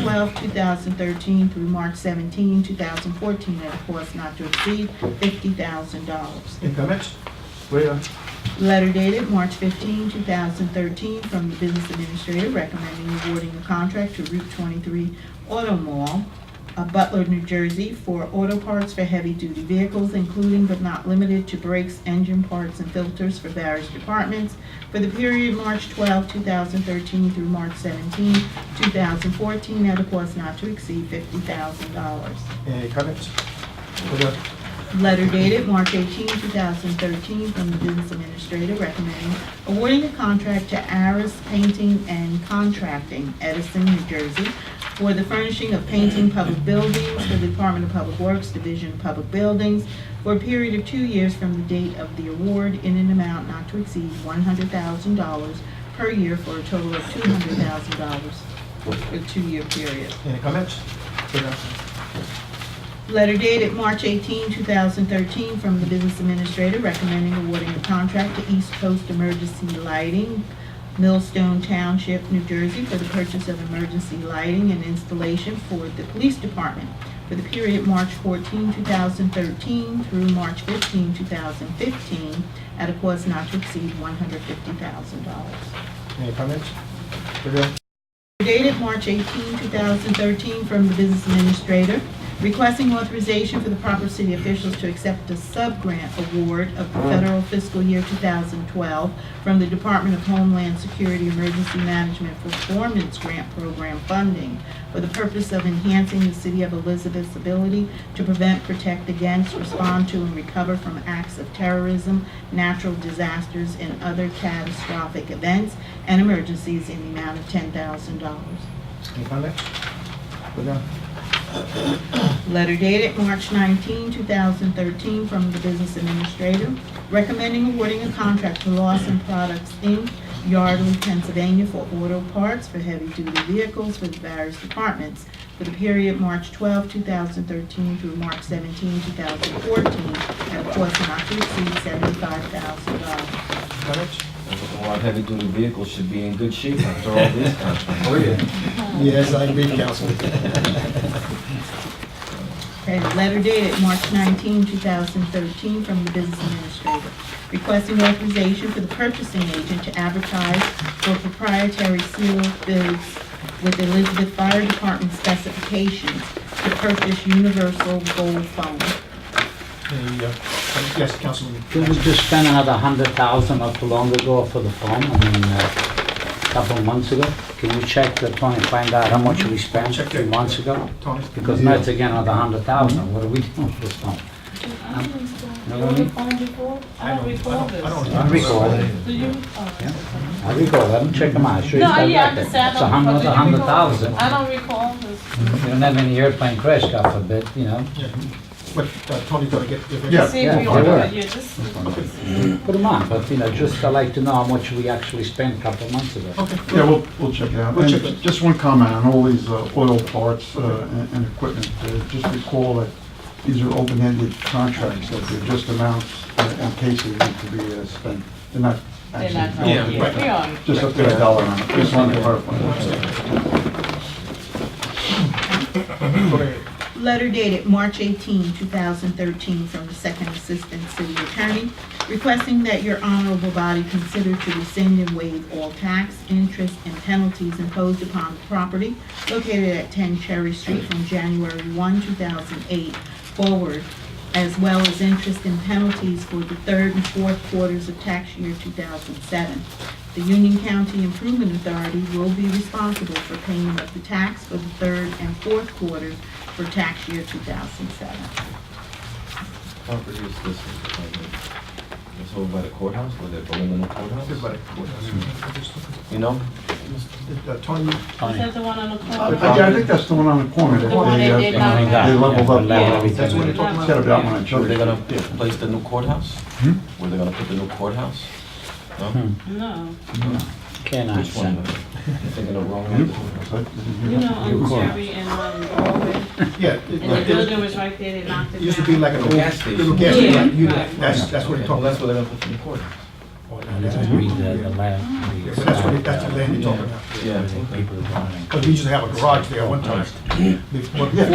twelfth, two thousand thirteen through March 17, 2014, at a cost not to exceed fifty thousand dollars. Any comments? Where, uh, Letter dated March 15, 2013, from the Business Administrator recommending awarding a contract to Route 23 Auto Mall, uh, Butler, New Jersey, for auto parts for heavy-duty vehicles, including but not limited to brakes, engine parts, and filters for various departments for the period March 12, 2013 through March 17, 2014, at a cost not to exceed $50,000. any comments? Where, uh, Letter dated March 18, 2013, from the Business Administrator recommending awarding a contract to Aris Painting and Contracting, Edison, New Jersey, for the furnishing of painting public buildings for the Department of Public Works Division of Public Buildings for a period of two years from the date of the award in an amount not to exceed $100,000 per year for a total of $200,000 for a two-year period. any comments? Where, uh, Letter dated March 18, 2013, from the Business Administrator recommending awarding a contract to East Coast Emergency Lighting, Millstone Township, New Jersey, for the purchase of emergency lighting and installation for the Police Department for the period March 14, 2013 through March 15, 2015, at a cost not to exceed $150,000. any comments? Where, uh, Dated March 18, 2013, from the Business Administrator, requesting authorization for the proper city officials to accept a sub-grant award of the federal fiscal year 2012 from the Department of Homeland Security Emergency Management Performance Grant Program funding for the purpose of enhancing the City of Elizabeth's ability to prevent, protect against, respond to, and recover from acts of terrorism, natural disasters, and other catastrophic events and emergencies in the amount of $10,000. any comments? Where, uh, Letter dated March 19, 2013, from the Business Administrator, recommending awarding a contract to Lawson Products, Inc., Yardley, Pennsylvania, for auto parts for heavy-duty vehicles for the various departments for the period March 12, 2013 through March 17, 2014, at a cost not to exceed $75,000. comments? A lot of heavy-duty vehicles should be in good shape after all these contracts. Yes, I agree, council. Okay, letter dated March 19, 2013, from the Business Administrator, requesting authorization for the purchasing agent to advertise for proprietary sealed bids with Elizabeth Fire Department specifications to purchase universal gold phones. Any, uh, Yes, Councilman. Did we just spend another hundred thousand not too long ago for the phone? I mean, a couple of months ago? Can you check the phone and find out how much Mm-hmm. we spent Check two it. months ago? Tony? Because now it's again another hundred Mm-hmm. thousand, what are we doing with this phone? I don't You recall. know what You I mean? recall before? I I don't- don't I recall don't- this. I don't- I recall, Do you? Oh, Yeah. okay. I recall, let them check them out, sure you No, got yeah, I that. It's understand. a hundred, But a you hundred recall- thousand. I don't recall this. You don't have any airplane crash, God forbid, you know? Yeah. But uh, Tony, gotta get. Yeah. See, yeah, we they ordered, were. yeah, this, Put them on, but you know, just i like to know how much we actually spent a couple of months ago. Okay. Yeah, we'll, we'll check it out. We'll And check it. Just one comment on all these uh, oil parts uh, and and equipment. Uh, Just recall that these are open-ended contracts, that they're just amounts uh, and cases that to be uh, spent. They're not they're actually. not, yeah, we right. are. Just up to a dollar amount. Just wanted to clarify. Go ahead. Letter dated March 18, 2013, from the Second Assistant City Attorney, requesting that your honorable body consider to rescind and waive all tax, interest, and penalties imposed upon the property located at 10 Cherry Street from January 1, 2008 forward, as well as interest and penalties for the third and fourth quarters of tax year 2007. The Union County Improvement Authority will be responsible for payment of the tax for the third and fourth quarters for tax year 2007. Property is this, it's over by the courthouse, where they're building the courthouse, Everybody. you know? Uh, Tony, Is that the one on the corner? I I think that's the one on the corner. that The one they, they uh, did not They have. leveled up. leveled everything That's what up. it- talking about? Set up that one on Where Cherry. they're gonna Yeah. place the new courthouse? Hmm? Where they're gonna put the new courthouse? No? No, Can I Which one? send? I'm Thinking of wrong New one. Corners, right? you know, Your on corner. Cherry and, um, Broadway. yeah. and the it- building It was right there, they knocked it down. used to be like an old Gas station. little gas Yeah, station. You- right. That's, that's what it Well, talked that's about. where they're gonna put the new courthouse. part I of just that. read the, the last. Uh, Yeah, but that's what, that's the land you're talking about. Yeah. People are buying. Because we used to have a garage there one time. Before-